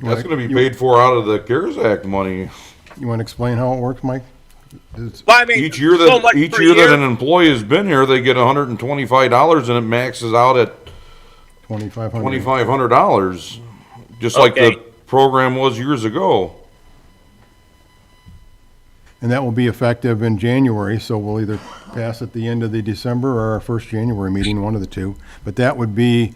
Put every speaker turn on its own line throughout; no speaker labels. That's
Like,
gonna be
you-
paid for out of the CARES Act money.
You want to explain how it works, Mike? It's-
Well, I mean,
Each year
so
that,
much
each
per
year that an employee has been here, they get hundred and twenty-five dollars and it maxes out at
2,500.
twenty-five hundred dollars. Just like the
Okay.
program was years ago.
And that will be effective in January, so we'll either pass at the end of the December or our first January meeting, one of the two. But that would be,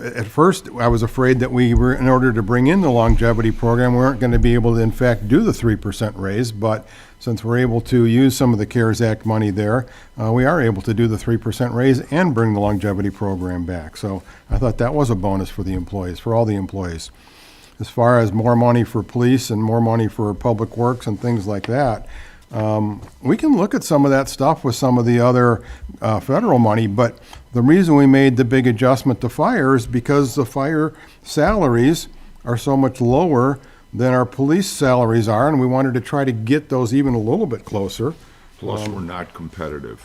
uh, at first, I was afraid that we were, in order to bring in the longevity program, we weren't going to be able to in fact do the 3% raise. But since we're able to use some of the CARES Act money there, uh, we are able to do the 3% raise and bring the longevity program back. So I thought that was a bonus for the employees, for all the employees as far as more money for police and more money for public works and things like that. Um, we can look at some of that stuff with some of the other uh, federal money, but the reason we made the big adjustment to fire is because the fire salaries are so much lower than our police salaries are, and we wanted to try to get those even a little bit closer.
Plus, we're not competitive.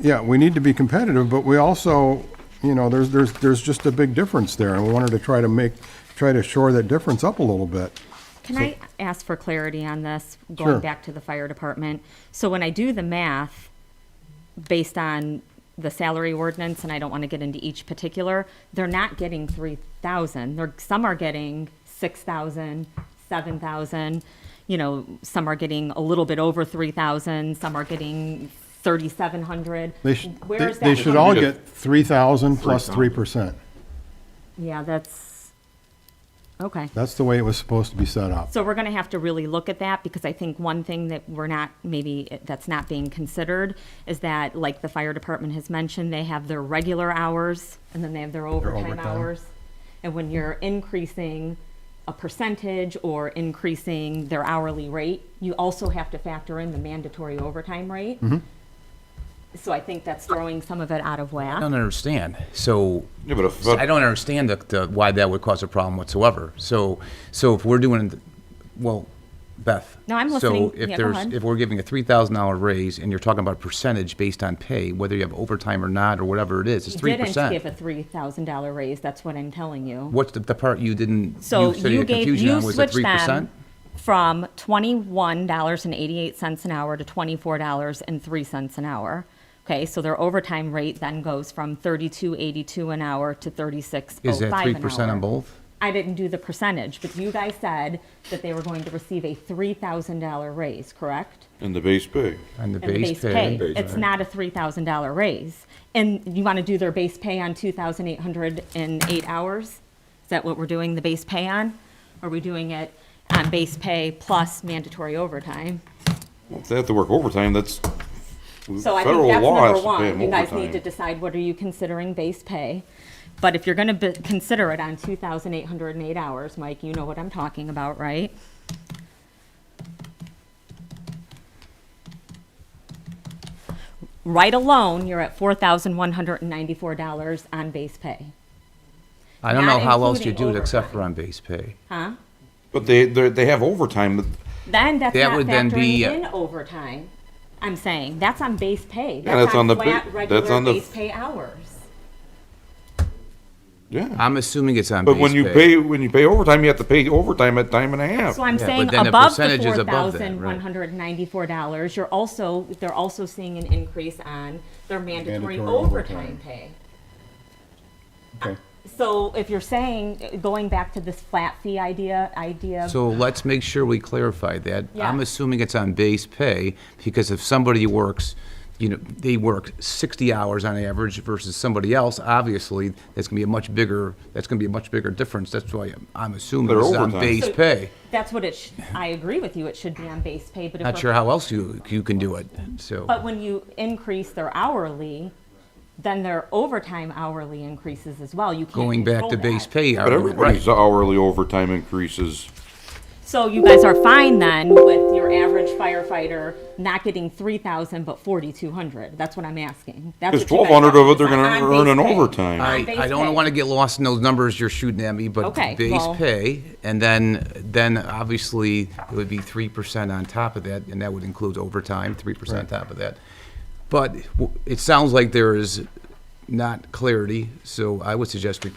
Yeah, we need to be competitive, but we also, you know, there's, there's, there's just a big difference there, and we wanted to try to make, try to shore that difference up a little bit.
Can I ask for clarity on this,
Sure.
going back to the fire department? So when I do the math, based on the salary ordinance, and I don't want to get into each particular, they're not getting three thousand. They're, some are getting six thousand, seven thousand, you know, some are getting a little bit over three thousand, some are getting thirty-seven hundred.
They should, they, they should all get three thousand plus three percent.
Yeah, that's, okay.
That's the way it was supposed to be set up.
So we're going to have to really look at that because I think one thing that we're not, maybe eh, that's not being considered is that, like the fire department has mentioned, they have their regular hours and then they have their overtime
overtime.
hours. And when you're increasing a percentage or increasing their hourly rate, you also have to factor in the mandatory overtime rate. So I think that's throwing some of it out of
I
whack.
don't understand. So
Yeah, but if-
I don't understand the, the, why that would cause a problem whatsoever. So so if we're doing, well, Beth.
No, I'm listening.
So if
Yeah, go
there's
ahead.
if we're giving a three thousand dollar raise and you're talking about a percentage based on pay, whether you have overtime or not or whatever it is, it's three
Didn't give a
percent.
three thousand dollar raise, that's what I'm telling you.
What's the, the part you didn't?
So
said
you
had
gave,
confusion
you
on was the
switched
3%?
them from twenty-one dollars and eighty-eight cents an hour to twenty-four dollars and three cents an hour. Okay, so their overtime rate then goes from thirty-two eighty-two an hour to thirty-six oh
Is that
five
three
an hour.
percent on both?
I didn't do the percentage, but you guys said that they were going to receive a three thousand dollar raise, correct?
In the base pay.
On
And
the
the
base
pay, it's not a three thousand dollar raise. And you want to do their base pay on two thousand eight hundred and eight hours? Is that what we're doing the base pay on? Are we doing it on base pay plus mandatory overtime?
Well, If they have to work overtime, that's
So I think
federal
that's
law
number
has to pay
one.
them
You guys need to
overtime.
decide what are you considering base pay? But if you're going to consider it on two thousand eight hundred and eight hours, Mike, you know what I'm talking about, right? Right alone, you're at four thousand one hundred and ninety-four dollars on base pay.
I don't
not
know how else you
including
do it except for
overtime.
on base pay.
But they, they're- they have overtime.
Then that's
That
not
would then
factoring
be-
uh,
in overtime. I'm saying, that's on base pay.
Yeah, that's on the ba-
flat,
that's
regular
on the-
base pay hours.
Yeah.
I'm assuming it's on base
But
pay.
when you pay, when you pay overtime, you have to pay overtime at time and a half.
So I'm
Oh, Yeah,
saying
but then the
above the
percentage is
four
above that,
thousand
right.
one hundred ninety-four dollars, you're also, they're also seeing an increase on their mandatory
Mandatory
overtime
overtime.
pay.
Okay.
So if you're saying, going back to this flat fee idea, idea,
So let's make sure we clarify that. I'm
Yeah.
assuming it's on base pay, because if somebody works, you know, they work 60 hours on average versus somebody else, obviously, that's gonna be a much bigger, that's gonna be a much bigger difference. That's why I'm- I'm assuming
Their
it's on
overtime.
base
So-
pay.
that's what it, sh- I agree with you, it should be on base pay, but if.
Not
we're-
sure how else you, you can do it, so.
But when you increase their hourly, then their overtime hourly increases as well, you can't
Going back
control
to
that.
base pay,
But
argument, right.
everybody's hourly overtime increases.
So you guys are fine then with your average firefighter not getting three thousand but forty two hundred. That's what I'm asking. That's
Because
what you guys
1,200 of it, they're
are-
gonna
on
earn an
base pay.
overtime.
On
I,
base
I don't
pay.
want to get lost in those numbers you're shooting at me, but
Okay,
base
well-
pay, and then, then obviously, it would be three percent on top of that, and that would include overtime, three percent on top of that. But w- it sounds like there is not clarity, so I would suggest we put